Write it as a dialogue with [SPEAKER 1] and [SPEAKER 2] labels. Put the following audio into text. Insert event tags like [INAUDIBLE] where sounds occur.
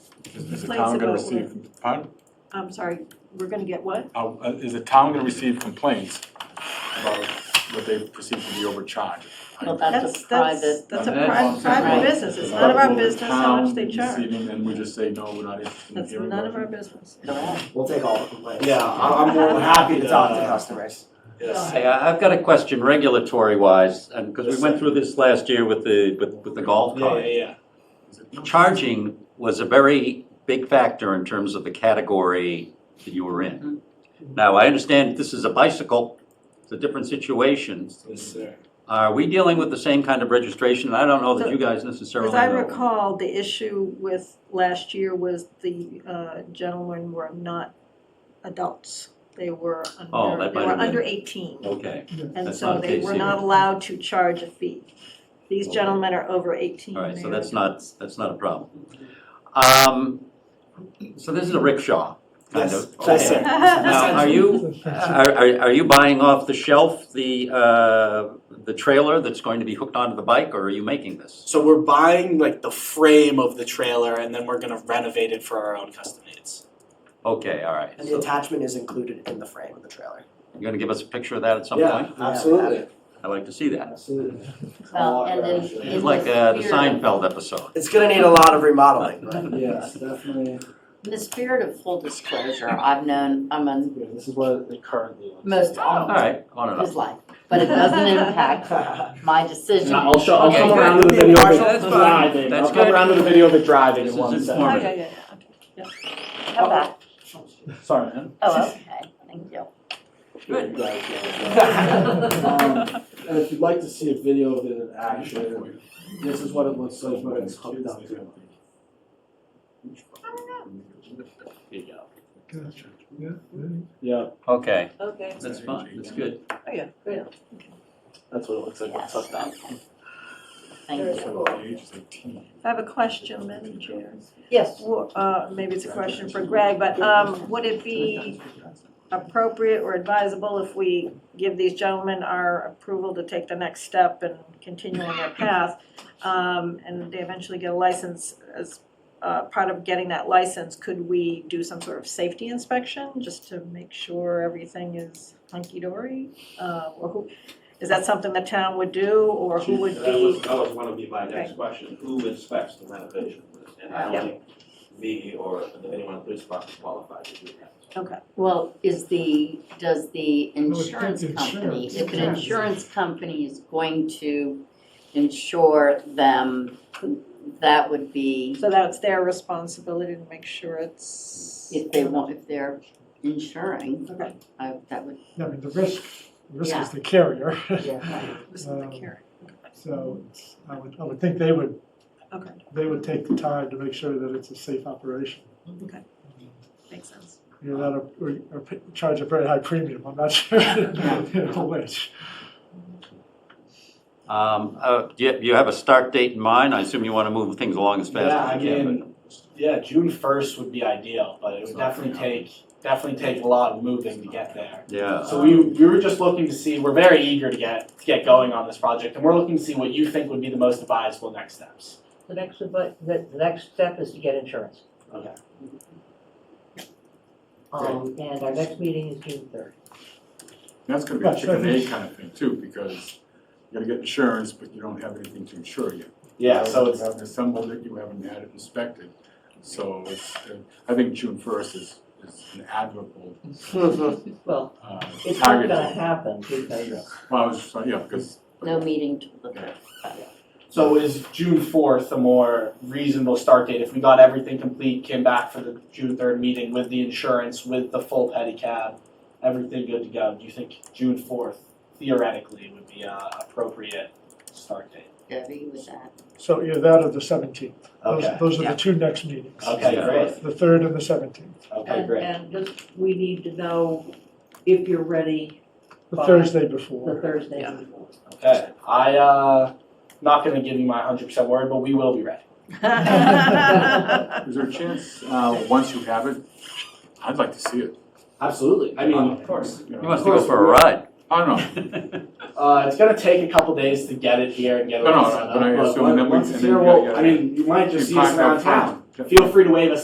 [SPEAKER 1] Is the
[SPEAKER 2] Complaints
[SPEAKER 1] town gonna
[SPEAKER 2] about what?
[SPEAKER 1] receive, pardon?
[SPEAKER 2] I'm sorry, we're gonna get what?
[SPEAKER 1] Uh, uh, Is the town gonna receive complaints about what they perceive to be overcharged?
[SPEAKER 3] Well, that's a private,
[SPEAKER 2] That's a
[SPEAKER 1] That's
[SPEAKER 2] private,
[SPEAKER 1] awesome.
[SPEAKER 2] private
[SPEAKER 3] Right.
[SPEAKER 2] business, it's none of our
[SPEAKER 1] Will the
[SPEAKER 2] business how much
[SPEAKER 1] town
[SPEAKER 2] they
[SPEAKER 1] be
[SPEAKER 2] charge.
[SPEAKER 1] receiving, And we just say, no, we're not interested in
[SPEAKER 2] That's
[SPEAKER 1] hearing
[SPEAKER 2] none
[SPEAKER 1] about
[SPEAKER 2] of our
[SPEAKER 1] it.
[SPEAKER 2] business.
[SPEAKER 3] no,
[SPEAKER 4] We'll take all the complaints.
[SPEAKER 5] Yeah, I- I'm more than happy to
[SPEAKER 4] talk to
[SPEAKER 5] uh,
[SPEAKER 4] customers.
[SPEAKER 5] Yes.
[SPEAKER 6] Hey, I- I've got a question regulatory wise, and because we went through this last year with the, with, with the golf
[SPEAKER 5] Oh, Yeah, yeah,
[SPEAKER 6] cart.
[SPEAKER 5] yeah.
[SPEAKER 6] Charging was a very big factor in terms of the category that you were in.
[SPEAKER 5] Mm-hmm.
[SPEAKER 6] Now, I understand this is a bicycle, it's a different situation.
[SPEAKER 5] Yes, sir.
[SPEAKER 6] Are we dealing with the same kind of registration? I don't know that you guys necessarily
[SPEAKER 2] As
[SPEAKER 6] know.
[SPEAKER 2] I recall, the issue with last year was the uh, gentlemen were not adults. They were
[SPEAKER 6] Oh,
[SPEAKER 2] under,
[SPEAKER 6] that
[SPEAKER 2] they
[SPEAKER 6] might
[SPEAKER 2] were
[SPEAKER 6] have been-
[SPEAKER 2] under eighteen,
[SPEAKER 6] Okay,
[SPEAKER 2] and
[SPEAKER 6] that's
[SPEAKER 2] so
[SPEAKER 6] not the
[SPEAKER 2] they
[SPEAKER 6] case
[SPEAKER 2] were
[SPEAKER 6] here.
[SPEAKER 2] not allowed to charge a fee. These
[SPEAKER 6] Okay.
[SPEAKER 2] gentlemen are over eighteen.
[SPEAKER 6] all right, so
[SPEAKER 2] They're [LAUGHS]
[SPEAKER 6] that's not, that's not a problem. Um, so this is a rickshaw, kind
[SPEAKER 5] Yes,
[SPEAKER 6] of.
[SPEAKER 5] yes,
[SPEAKER 6] Okay.
[SPEAKER 5] sir.
[SPEAKER 6] Now, are you, are, are- are you buying off the shelf the, uh, the trailer that's going to be hooked onto the bike, or are you making this?
[SPEAKER 5] So we're buying like the frame of the trailer and then we're gonna renovate it for our own custom needs.
[SPEAKER 6] Okay, all right.
[SPEAKER 4] And the
[SPEAKER 6] So
[SPEAKER 4] attachment is included in the frame of the trailer.
[SPEAKER 6] You're gonna give us a picture of that at some point?
[SPEAKER 4] absolutely.
[SPEAKER 6] I'd like to see that.
[SPEAKER 4] Absolutely.
[SPEAKER 3] well, and then in
[SPEAKER 6] It's like uh, the
[SPEAKER 3] the spirit,
[SPEAKER 6] Seinfeld episode.
[SPEAKER 4] It's gonna need a lot of remodeling, but
[SPEAKER 1] [LAUGHS]
[SPEAKER 4] [LAUGHS]
[SPEAKER 7] Yes, definitely.
[SPEAKER 3] in the spirit of full disclosure, I've known, I'm on
[SPEAKER 7] Yeah, this is what it currently looks.
[SPEAKER 3] most
[SPEAKER 6] All
[SPEAKER 3] all
[SPEAKER 6] right, on and
[SPEAKER 3] of his
[SPEAKER 6] off.
[SPEAKER 3] life, but it doesn't impact my decision.
[SPEAKER 7] I'll show, I'll come
[SPEAKER 6] Okay.
[SPEAKER 7] around to the video of
[SPEAKER 6] Okay, that's
[SPEAKER 7] it
[SPEAKER 6] fine.
[SPEAKER 7] driving,
[SPEAKER 6] That's
[SPEAKER 7] I'll come
[SPEAKER 6] good.
[SPEAKER 7] around to the video of it driving
[SPEAKER 6] This
[SPEAKER 7] in
[SPEAKER 6] is
[SPEAKER 7] one second.
[SPEAKER 2] Oh,
[SPEAKER 6] informative.
[SPEAKER 2] yeah, yeah, yeah.
[SPEAKER 3] How about,
[SPEAKER 7] Sorry, man.
[SPEAKER 3] oh, okay, thank you.
[SPEAKER 6] Good.
[SPEAKER 7] Um,
[SPEAKER 6] [LAUGHS]
[SPEAKER 7] and if you'd like to see a video of it in
[SPEAKER 4] [LAUGHS]
[SPEAKER 7] action, this is what it looks like when it's hooked up to. it.
[SPEAKER 6] There you go.
[SPEAKER 7] Yeah,
[SPEAKER 6] Okay,
[SPEAKER 2] Okay,
[SPEAKER 6] that's fine, that's good.
[SPEAKER 2] oh, yeah, great.
[SPEAKER 7] that's what it looks like when it's hooked up.
[SPEAKER 3] Thank you.
[SPEAKER 1] So the age is eighteen.
[SPEAKER 2] I have a question, Madam Chair.
[SPEAKER 3] Yes.
[SPEAKER 2] Well, uh, maybe it's a question for Greg, but, um, would it be appropriate or advisable if we give these gentlemen our approval to take the next step and continue on their path? Um, and they eventually get a license, as, uh, part of getting that license, could we do some sort of safety inspection just to make sure everything is hunky-dory? Uh, or who, is that something the town would do, or who would be?
[SPEAKER 8] That was, that was one of my next question, who inspects the renovation? And I
[SPEAKER 2] Yeah.
[SPEAKER 8] don't think me or anyone in the police department is qualified to do that.
[SPEAKER 3] Well, is the, does the insurance
[SPEAKER 9] the
[SPEAKER 3] company,
[SPEAKER 9] insurance,
[SPEAKER 3] if an
[SPEAKER 9] yeah.
[SPEAKER 3] insurance company is going to insure them, that would be,
[SPEAKER 2] So that's their responsibility to make sure it's.
[SPEAKER 3] if they want, if they're insuring,
[SPEAKER 2] Okay.
[SPEAKER 3] I, that would,
[SPEAKER 9] I mean, the risk, the risk is the carrier,
[SPEAKER 2] This is the carrot.
[SPEAKER 9] so it's- I would, I would think they would,
[SPEAKER 2] Okay.
[SPEAKER 9] they would take the time to make sure that it's a safe operation.
[SPEAKER 2] Makes sense.
[SPEAKER 9] You're not, a- or, or p- charge a very high premium, I'm not [LAUGHS] sure, you know, which.
[SPEAKER 6] Um, uh, do you, you have a start date in mind? I assume you wanna move things along as fast
[SPEAKER 5] Yeah, I
[SPEAKER 6] as you can, but-
[SPEAKER 5] mean, yeah, June first would be ideal, but it would definitely take, definitely take a lot of moving to get there.
[SPEAKER 6] Yeah.
[SPEAKER 5] So we, we were just looking to see, we're very eager to get, to get going on this project and we're looking to see what you think would be the most advisable next steps.
[SPEAKER 10] The next, advi- the, the next step is to get insurance.
[SPEAKER 5] Okay.
[SPEAKER 10] Um, and our next meeting is June third.
[SPEAKER 1] That's gonna be a
[SPEAKER 9] Right, so I
[SPEAKER 1] chicken and
[SPEAKER 9] think-
[SPEAKER 1] egg kind of thing too, because you gotta get insurance, but you don't have anything to insure yet.
[SPEAKER 5] Yeah, so
[SPEAKER 1] You
[SPEAKER 5] it's,
[SPEAKER 1] haven't assembled it, you haven't had it inspected, so it's, uh, I think June first is, is an admirable,
[SPEAKER 10] Well,
[SPEAKER 1] uh, target.
[SPEAKER 10] it's not gonna happen because,
[SPEAKER 1] Well, I was just, yeah, because.
[SPEAKER 3] no meeting till the third.
[SPEAKER 5] so is June fourth a more reasonable start date? If we got everything complete, came back for the June third meeting with the insurance, with the full pedicab, everything good to go, do you think June fourth theoretically would be a appropriate start date?
[SPEAKER 3] Debbie with that.
[SPEAKER 9] So either that or the seventeenth.
[SPEAKER 5] Okay,
[SPEAKER 9] Those are
[SPEAKER 10] Yeah.
[SPEAKER 9] the two next meetings.
[SPEAKER 5] okay, great,
[SPEAKER 9] The third and the seventeenth,
[SPEAKER 5] okay,
[SPEAKER 10] and,
[SPEAKER 5] great.
[SPEAKER 10] and just, we need to know if you're ready
[SPEAKER 9] the
[SPEAKER 10] Fine.
[SPEAKER 9] Thursday
[SPEAKER 10] for
[SPEAKER 9] before.
[SPEAKER 10] Thursday.
[SPEAKER 2] Yeah.
[SPEAKER 5] Okay, I, uh, not gonna give you my hundred percent word, but we will be ready.
[SPEAKER 2] [LAUGHS]
[SPEAKER 1] Is there a chance, uh, once you have it, I'd like to see it.
[SPEAKER 5] Absolutely, I mean.
[SPEAKER 1] Of course.
[SPEAKER 6] You must go for a ride. [LAUGHS]
[SPEAKER 1] I don't know,
[SPEAKER 5] Uh, it's gonna take a couple days to get it here and get it
[SPEAKER 1] No, no,
[SPEAKER 5] all
[SPEAKER 1] no,
[SPEAKER 5] set up.
[SPEAKER 1] but I assume that we-
[SPEAKER 5] once
[SPEAKER 1] and
[SPEAKER 5] it's
[SPEAKER 1] then
[SPEAKER 5] here,
[SPEAKER 1] you gotta
[SPEAKER 5] well,
[SPEAKER 1] get
[SPEAKER 5] I
[SPEAKER 1] it.
[SPEAKER 5] mean, you might just
[SPEAKER 1] You
[SPEAKER 5] see us
[SPEAKER 1] talked about
[SPEAKER 5] around town.
[SPEAKER 1] town.
[SPEAKER 5] Feel free to wave us